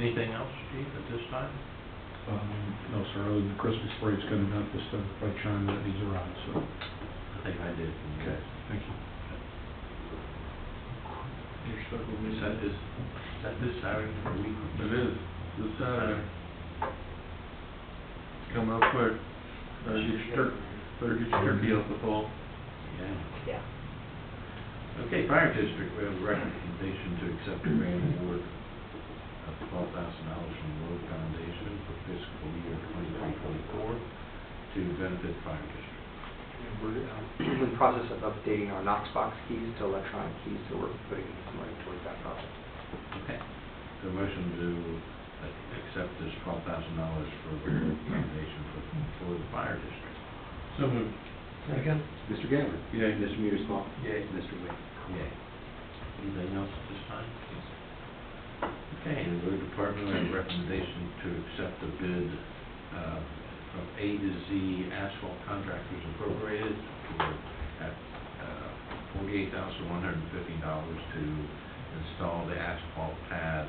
Anything else, chief, at this time? Um, No, sir, other than the Christmas parade's coming up, this stuff by China that needs around, so, I think I did. okay, thank you. You're still going. Is that this, is that this Saturday or week? It is, this Saturday. It's coming up quick. Better get your turkey, better get your turkey out the fall. Yeah. Yeah. Okay, fire district, we have a recommendation to accept a grant award of twelve thousand dollars from the Road Foundation for fiscal year twenty-three, twenty-four to benefit fire district. And We're uh, in the process of updating our Knox box keys to electronic keys, so we're putting some money towards that project. Okay. The motion to uh, accept this twelve thousand dollars for the Road Foundation for, for the fire district. So moved. Second. Mr. Gabbard? Yay. Mr. Mearsclaw? Yay. Mr. Wade? Yay. Anything else at this time? Okay, the road department, we have a recommendation to accept the bid uh, from A to Z Asphalt Contractors Incorporated for, at uh, forty-eight thousand one hundred and fifty dollars to install the asphalt pad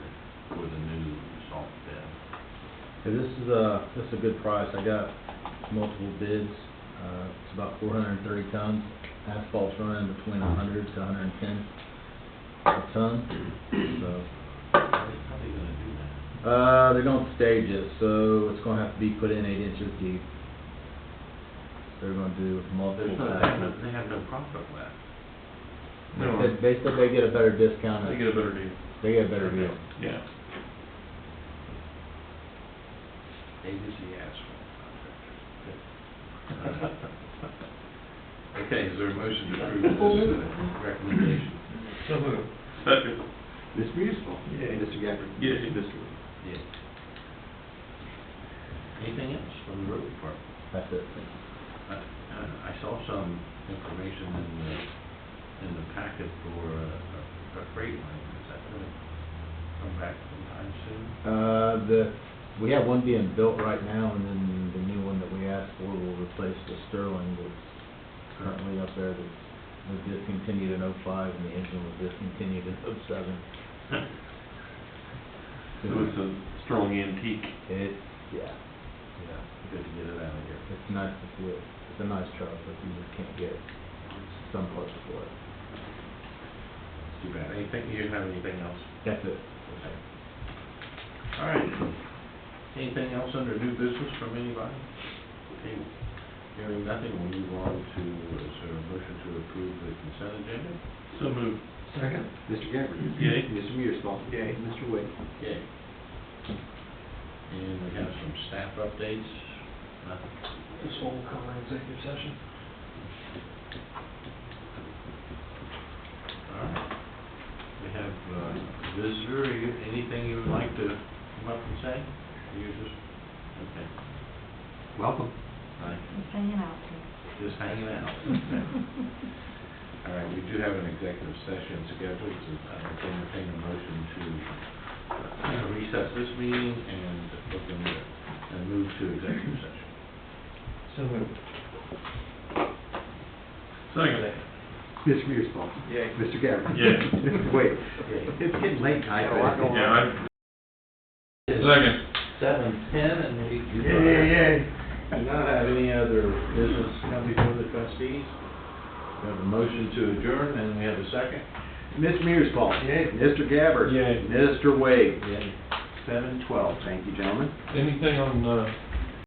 for the new salt bed. Yeah, this is a, this is a good price. I got multiple bids. Uh, it's about four hundred and thirty tons. Asphalt's running between a hundred to hundred and ten a ton. So, How they- how they gonna do that? uh, they're gonna stage it, so it's gonna have to be put in eight inches deep. They're gonna do multiple There's no, they have passes. no- they have no profit left. They said, they said they get a better discount. They get a better deal. They get a better deal. Yeah. A to Z Asphalt Contractors. Okay, is there a motion to approve this uh, recommendation? So moved. Second. Mr. Mearsclaw? Yay. Mr. Gabbard? Yay. Mr. Wade? Yeah. Anything else from the road department? That's it. I, Uh, I- I saw some information in the, in the packet for uh, a a freight line, is that gonna come back sometime soon? Uh, the, we have one being built right now, and then the new one that we asked for will replace the Sterling that's currently up there that was discontinued in oh-five, and the engine was discontinued in oh oh-seven. So it's a strong antique. It's, yeah, yeah, Good to get it out of here. it's nice to see it, it's a nice truck, but you just can't get some parts for it. It's Too bad. Anything, you have anything else? That's it. Okay. All right. Anything else under new business from anybody? Okay. Hearing nothing, we'll move on to, is there a motion to approve the consent agenda? So moved. Second. Mr. Gabbard? Yay. Mr. Mearsclaw? Yay. Mr. Wade? Okay. And we have some staff updates. Nothing. This will come in executive session. All right. We have uh, visitor, You- anything you would like to come up and say? You just, okay, Welcome. fine. Just hanging out here. just hanging out. All right, we do have an executive session scheduled, so I would entertain a motion to uh, recess this meeting and open the, and move to executive session. So uh, moved. Second. Mr. Mearsclaw? Yay. Mr. Gabbard? Yay. Mr. Wade? Okay. It's getting late tonight. Got a lot but- going on. Yeah, I, second. Seven, ten, and we. Do not have any other business Now before the trustees, we have a motion to adjourn, and we have a second. Mr. Mearsclaw? Mr. Gabbard? Yay. Mr. Wade? Yeah. Seven twelve, thank you, gentlemen. Anything on, uh,